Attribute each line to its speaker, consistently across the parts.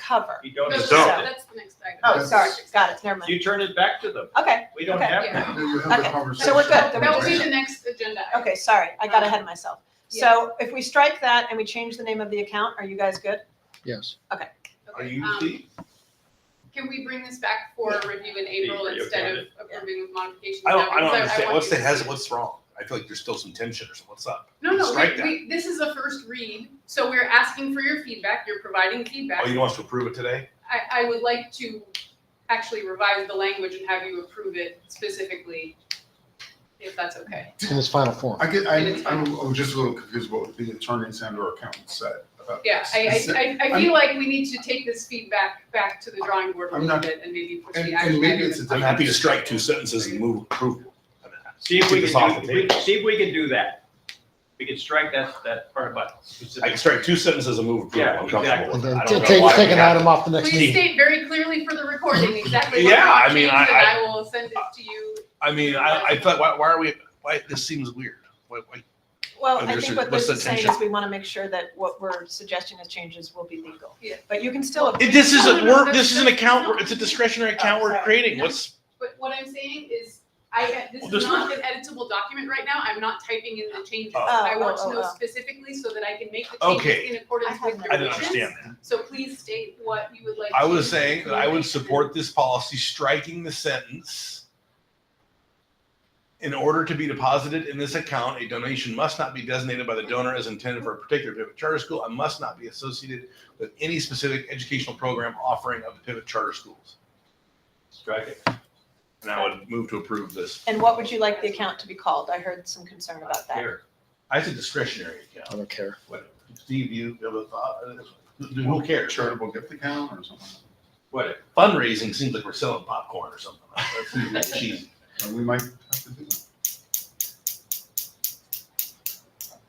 Speaker 1: cover.
Speaker 2: You don't,
Speaker 3: No,
Speaker 2: have-
Speaker 4: don't.
Speaker 3: that's- That's the next item.
Speaker 1: Oh, sorry, got it, never mind.
Speaker 2: you turn it back to them.
Speaker 1: Okay,
Speaker 2: We don't
Speaker 1: Okay.
Speaker 2: have
Speaker 3: Yeah.
Speaker 2: to.
Speaker 4: Then you have the
Speaker 1: Okay,
Speaker 4: conversation.
Speaker 1: so we're good. Then
Speaker 3: That will be
Speaker 1: just-
Speaker 3: the next agenda. item.
Speaker 1: okay, sorry, I got ahead of myself. So if we strike that and we change the name of the account, are you guys good?
Speaker 5: Yes.
Speaker 2: Are you
Speaker 3: Um,
Speaker 2: the-
Speaker 3: Can we bring this back for review in April
Speaker 2: Are you
Speaker 3: instead
Speaker 2: okay
Speaker 3: of approving with modifications?
Speaker 6: I don't,
Speaker 3: now?
Speaker 6: I don't
Speaker 3: Because
Speaker 6: understand.
Speaker 3: want
Speaker 6: What's
Speaker 3: you
Speaker 6: the
Speaker 3: to-
Speaker 6: hesitant? What's wrong? I feel like there's still some tension or something. What's up?
Speaker 3: No, no,
Speaker 6: Strike
Speaker 3: we, we, this is a first read, so we're asking for your feedback, you're providing
Speaker 6: Oh,
Speaker 3: feedback.
Speaker 6: you want us to approve it today?
Speaker 3: I, I would like to actually revise the language and have you approve it specifically, if that's okay.
Speaker 5: In its final form.
Speaker 4: I get, I, I'm, I'm just a little confused about what the attorneys and or accountants said about
Speaker 3: Yeah,
Speaker 4: this.
Speaker 3: I,
Speaker 4: Is it-
Speaker 3: I, I, I feel like we need to take this feedback back to the drawing board a
Speaker 4: I'm
Speaker 3: little
Speaker 4: not-
Speaker 3: bit and maybe push
Speaker 4: And,
Speaker 3: the
Speaker 4: and
Speaker 3: action.
Speaker 4: maybe
Speaker 3: item.
Speaker 4: it's a.
Speaker 6: I'm happy to
Speaker 4: different-
Speaker 6: strike two sentences and move approval.
Speaker 2: See if
Speaker 6: Take
Speaker 2: we
Speaker 6: this off
Speaker 2: can
Speaker 6: the
Speaker 2: do,
Speaker 6: table.
Speaker 2: see if we can do that. We can strike that, that part about
Speaker 6: I can
Speaker 2: specific.
Speaker 6: strike two sentences and move approval.
Speaker 2: Yeah,
Speaker 6: I'm comfortable
Speaker 5: And
Speaker 6: with it.
Speaker 5: then
Speaker 6: I
Speaker 5: t-
Speaker 6: don't know
Speaker 5: take,
Speaker 6: why
Speaker 5: take
Speaker 6: we
Speaker 5: an
Speaker 6: have
Speaker 5: item off the next
Speaker 3: Please
Speaker 5: meeting.
Speaker 3: state very clearly for the recording exactly what
Speaker 6: Yeah, I
Speaker 3: you
Speaker 6: mean,
Speaker 3: changed,
Speaker 6: I-
Speaker 3: and I will send it to you.
Speaker 6: to- I mean, I, I thought, why, why are we, why, this seems weird. Why, why,
Speaker 1: Well,
Speaker 6: Oh,
Speaker 1: I
Speaker 6: there's
Speaker 1: think
Speaker 6: a-
Speaker 1: what
Speaker 6: what's
Speaker 1: Liz
Speaker 6: the
Speaker 1: is saying
Speaker 6: tension?
Speaker 1: is we want to make sure that what we're suggesting as changes will be legal.
Speaker 3: Yeah.
Speaker 1: But you can still.
Speaker 6: It- this
Speaker 3: No, no,
Speaker 6: isn't,
Speaker 3: no,
Speaker 6: we're,
Speaker 3: that's-
Speaker 6: this is an
Speaker 3: that's
Speaker 6: account,
Speaker 3: not-
Speaker 6: we're- it's a discretionary account
Speaker 1: Oh,
Speaker 6: we're
Speaker 1: sorry.
Speaker 6: creating.
Speaker 3: No.
Speaker 6: What's,
Speaker 3: But what I'm saying is, I, this
Speaker 6: Well,
Speaker 3: is
Speaker 6: there's
Speaker 3: not an editable document right now, I'm not typing in the changes.
Speaker 6: Oh.
Speaker 3: I want
Speaker 1: Oh, oh,
Speaker 3: to know
Speaker 1: oh, oh.
Speaker 3: specifically so that I can make the
Speaker 6: Okay.
Speaker 3: changes in
Speaker 1: I
Speaker 3: accordance
Speaker 1: have
Speaker 3: with
Speaker 1: no
Speaker 3: your
Speaker 6: I didn't
Speaker 3: wishes.
Speaker 6: understand that.
Speaker 3: So please state what you would like.
Speaker 6: I was
Speaker 3: to-
Speaker 6: saying that I would support this policy striking the sentence. In order to be deposited in this account, a donation must not be designated by the donor as intended for a particular Pivot Charter School and must not be associated with any specific educational program offering of the Pivot Charter Schools.
Speaker 2: Strike it.
Speaker 6: And I would move to approve this.
Speaker 1: And what would you like the account to be called? I heard some concern about that.
Speaker 2: Here.
Speaker 6: I said discretionary
Speaker 5: I
Speaker 6: account.
Speaker 5: don't care.
Speaker 6: What- Steve, you have a thought? Who cares?
Speaker 4: Charitable gift account or something.
Speaker 2: What,
Speaker 6: Fundraising seems like we're selling popcorn or something. That seems cheesy.
Speaker 4: And we might have to do that.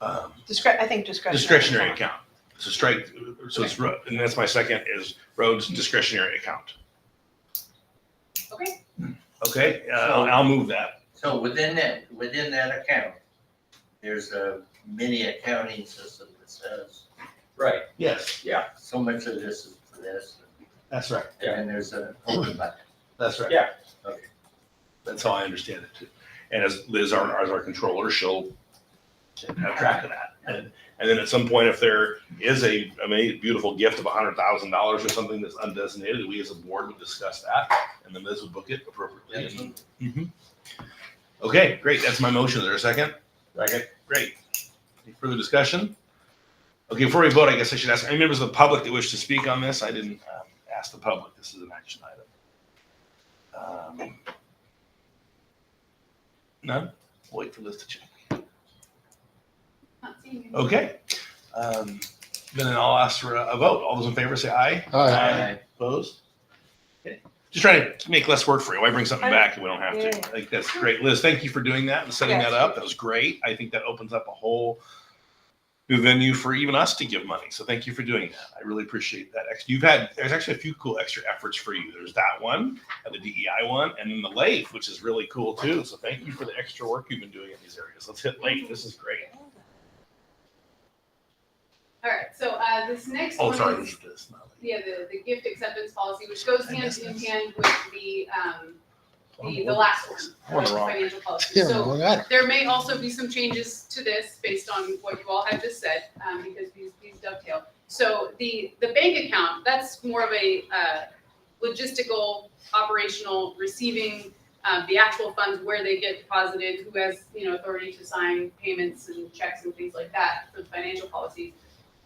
Speaker 6: Um,
Speaker 1: Discre, I think discretionary.
Speaker 6: discretionary account. So strike, so it's, ro- and that's my second is roads discretionary account.
Speaker 3: Okay,
Speaker 6: Okay, uh, I'll, I'll move that.
Speaker 7: So within that, within that account, there's a mini accounting system that says
Speaker 2: right,
Speaker 6: Yes,
Speaker 7: so much of this is for this,
Speaker 6: that's right.
Speaker 7: and then there's an open bucket.
Speaker 6: That's right.
Speaker 2: Yeah.
Speaker 7: Okay.
Speaker 6: That's how I understand it too. And as Liz, our, as our controller, she'll have track of that. And, and then at some point, if there is a, a ma- beautiful gift of a hundred thousand dollars or something that's undesignated, we as a board would discuss that and then Liz would book it appropriately. and- Mhm. Okay, great. That's my motion. Is there a second?
Speaker 2: second,
Speaker 6: Great. Any further discussion? Okay, before we vote, I guess I should ask, any members of the public that wish to speak on this? I didn't um, ask the public. This is an action item. Um, None? Wait for Liz to check.
Speaker 3: not seeing any.
Speaker 6: Okay. Um, Then I'll ask for a a vote. All those in favor say aye.
Speaker 5: Aye.
Speaker 6: Aye. Opposed? Okay. Just trying to make less work for you. Why bring something back if we don't have to? I think that's great. Liz, thank you for doing that and setting that up. That was great. I think that opens up a whole new venue for even us to give money. So thank you for doing that. I really appreciate that. Ex- You've had, there's actually a few cool extra efforts for you. There's that one, and the DEI one, and then the LAIF, which is really cool too. So thank you for the extra work you've been doing in these areas. Let's hit LAIF. This is great.
Speaker 3: All right, so, uh, this next
Speaker 6: Oh,
Speaker 3: one
Speaker 6: sorry.
Speaker 3: is-
Speaker 6: this is- this is not LAIF.
Speaker 3: yeah, the, the gift acceptance policy, which goes
Speaker 6: I
Speaker 3: hand
Speaker 6: missed
Speaker 3: in
Speaker 6: this.
Speaker 3: hand with the, um, the, the
Speaker 6: Oh,
Speaker 3: last one.
Speaker 6: I'm on the
Speaker 3: about
Speaker 6: wrong-
Speaker 3: Financial policy,
Speaker 5: Yeah,
Speaker 3: so.
Speaker 5: well, I don't-
Speaker 3: There may also be some changes to this based on what you all have just said, um, because these, these dovetail. So the, the bank account, that's more of a, uh, logistical, operational, receiving, uh, the actual funds, where they get deposited, who has, you know, authority to sign payments and checks and things like that for the financial policy.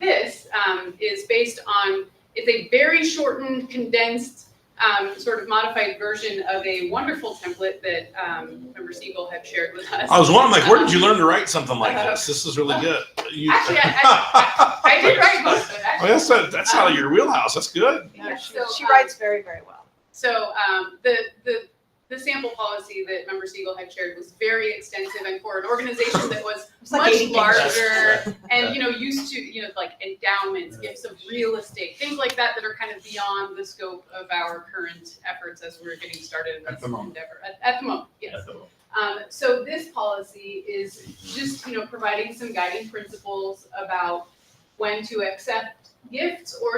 Speaker 3: This, um, is based on, it's a very shortened, condensed, um, sort of modified version of a wonderful template that um, Member Siegel had shared with us.
Speaker 6: I was wondering, like, where did you learn to write something like
Speaker 3: Uh-huh.
Speaker 6: this? This is really good. You-
Speaker 3: Actually, I- I did write most of it,
Speaker 6: Oh,
Speaker 3: actually.
Speaker 6: that's not, that's out of your wheelhouse. That's good.
Speaker 1: No, she,
Speaker 3: So,
Speaker 1: she
Speaker 3: um,
Speaker 1: writes very, very well.
Speaker 3: So um, the, the, the sample policy that Member Siegel had shared was very extensive and for an organization that was
Speaker 1: It's like
Speaker 3: much
Speaker 1: 80 pages.
Speaker 3: larger and, you know, used to, you know, like endowments, gifts of real estate, things like that that are kind of beyond the scope of our current efforts as we're getting started in
Speaker 4: At
Speaker 3: this
Speaker 4: the moment.
Speaker 3: endeavor. At, at the moment, yes. Um, so this policy is just, you know, providing some guiding principles about when to accept gifts or